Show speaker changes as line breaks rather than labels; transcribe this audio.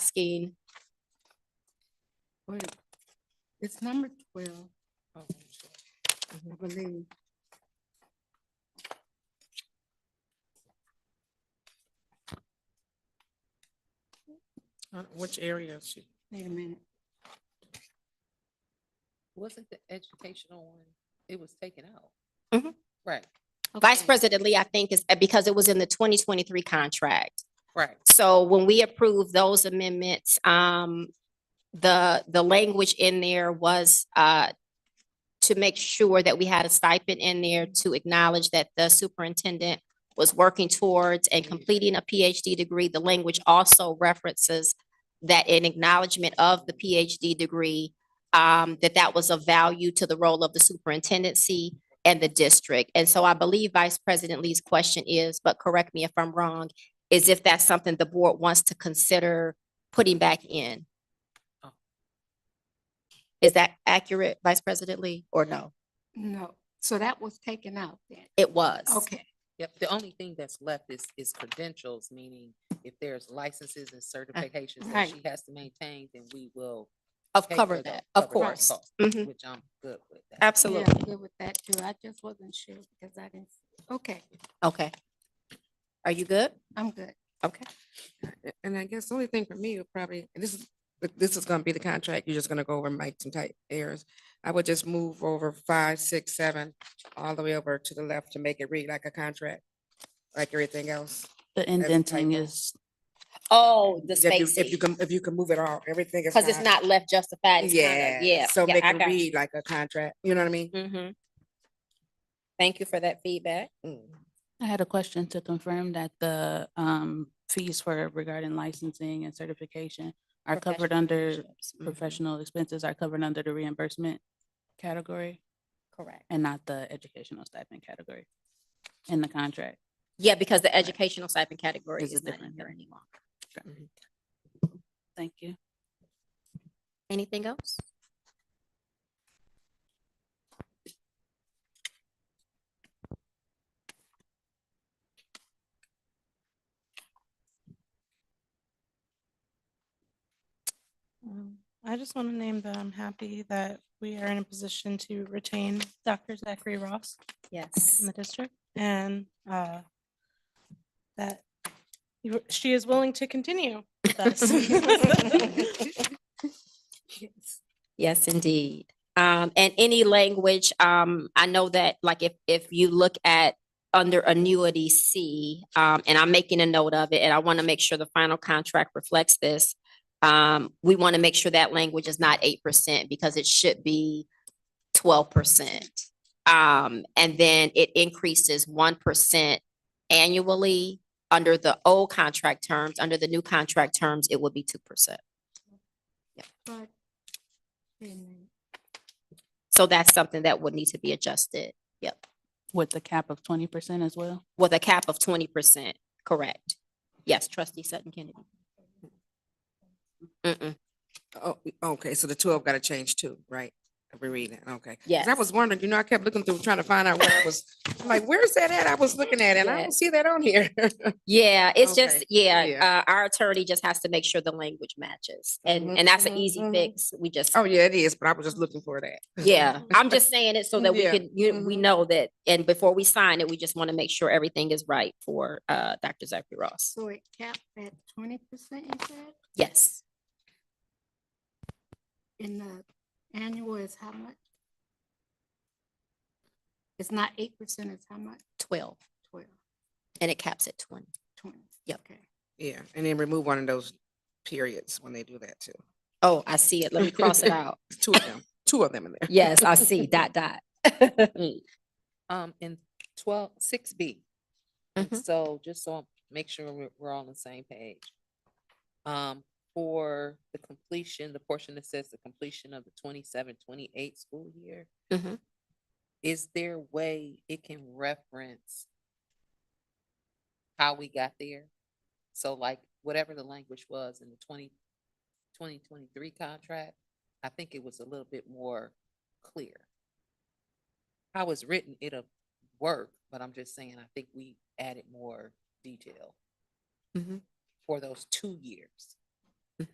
asking. Wait, it's number twelve.
Oh,
I believe.
Uh, Which area is she?
Wait a minute.
Wasn't the educational one, it was taken out?
Mhm.
Right,
Vice President Lee, I think is, because it was in the twenty twenty-three contract.
right.
So when we approved those amendments, um, the, the language in there was, uh, to make sure that we had a stipend in there to acknowledge that the superintendent was working towards and completing a PhD degree. The language also references that in acknowledgement of the PhD degree, um, that that was of value to the role of the superintendency and the district. And so I believe Vice President Lee's question is, but correct me if I'm wrong, is if that's something the board wants to consider putting back in.
Oh.
Is that accurate, Vice President Lee, or no?
No, so that was taken out then.
It was.
Okay,
Yep, the only thing that's left is, is credentials, meaning if there's licenses and
Uh,
certifications that
right.
she has to maintain, then we will.
Of
pay
cover
for those-
that, of
cover those
course.
costs,
Mhm.
Which I'm good with. that.
yeah,
Absolutely.
I'm good with that too. I just wasn't sure because I didn't, okay,
Okay. Are you good?
I'm good.
Okay.
A- And I guess the only thing for me would probably, and this is, but this is gonna be the contract, you're just gonna go over Mike some type errors. I would just move over five, six, seven, all the way over to the left to make it read like a contract, like everything else.
The indenting
typo.
is,
Oh, the
If you- If you
spacing,
can, if you can move it all, everything is.
because it's
fine.
not left justified. it's kinda-
Yeah.
Yeah.
So
yeah,
make
I
it
got you.
read like a contract, you know what I mean?
Mhm. Thank you for that feedback.
Mm.
I had a question to confirm that the um fees for regarding licensing and certification are covered
Professional
under,
relationships. Mm-hmm.
professional expenses are covered under the reimbursement category
Correct.
and not the educational stipend category in the contract.
Yeah, because the educational stipend category
Is
is
it
not in
different,
here
right?
anymore.
Thank you.
Anything else?
Um, I just want to name that I'm happy that we are in a position to retain Dr. Zachary Ross
Yes.
in the district and uh, that you- she is willing to continue with us.
Yes, indeed. Um, and any language, um, I know that like if, if you look at under annuity C, um, and I'm making a note of it, and I want to make sure the final contract reflects this. Um, we want to make sure that language is not eight percent because it should be twelve percent. Um, and then it increases one percent annually under the old contract terms. Under the new contract terms, it would be two percent.
But wait a minute.
So that's something that would need to be adjusted. Yep.
With the cap of twenty percent as well?
With a cap of twenty percent, correct? Yes, trustee Sutton Kennedy. Mm-mm.
Oh, okay, so the twelve gotta change too, right? I'll be reading it, okay. 'Cause I
Yes.
was wondering, you know, I kept looking through, trying to find out where I was, I'm like, where's that at? I was looking at it and I don't
Yes.
see that on here.
Yeah, it's just,
Okay,
yeah, uh,
yeah.
our attorney just has to make sure the language matches and,
Mhm,
and that's an
mhm,
easy
mhm.
fix. We just,
Oh, yeah, it is, but I was just looking for that.
yeah, I'm just saying it so that we
Yeah,
can, you, we
mhm.
know that. And before we sign it, we just want to make sure everything is right for, uh, Dr. Zachary Ross.
So it capped at twenty percent, you said,
Yes,
and the annual is how much? It's not eight percent, it's how much?
twelve,
Twelve,
and it caps at twenty.
twenty.
Yep.
Okay.
Yeah, and then remove one of those periods when they do that too.
Oh, I see it. Let me cross it out.
It's Two of them, two of them in there.
Yes, I see, dot, dot.
Um, in twelve, six B.
Mhm.
So just so, make sure we're, we're all on the same page. Um, for the completion, the portion that says the completion of the 27-28 school year.
Mhm.
Is there a way it can reference how we got there? So like, whatever the language was in the 20 2023 contract, I think it was a little bit more clear. How it's written, it'll work, but I'm just saying, I think we added more detail
Mhm.
for those two years.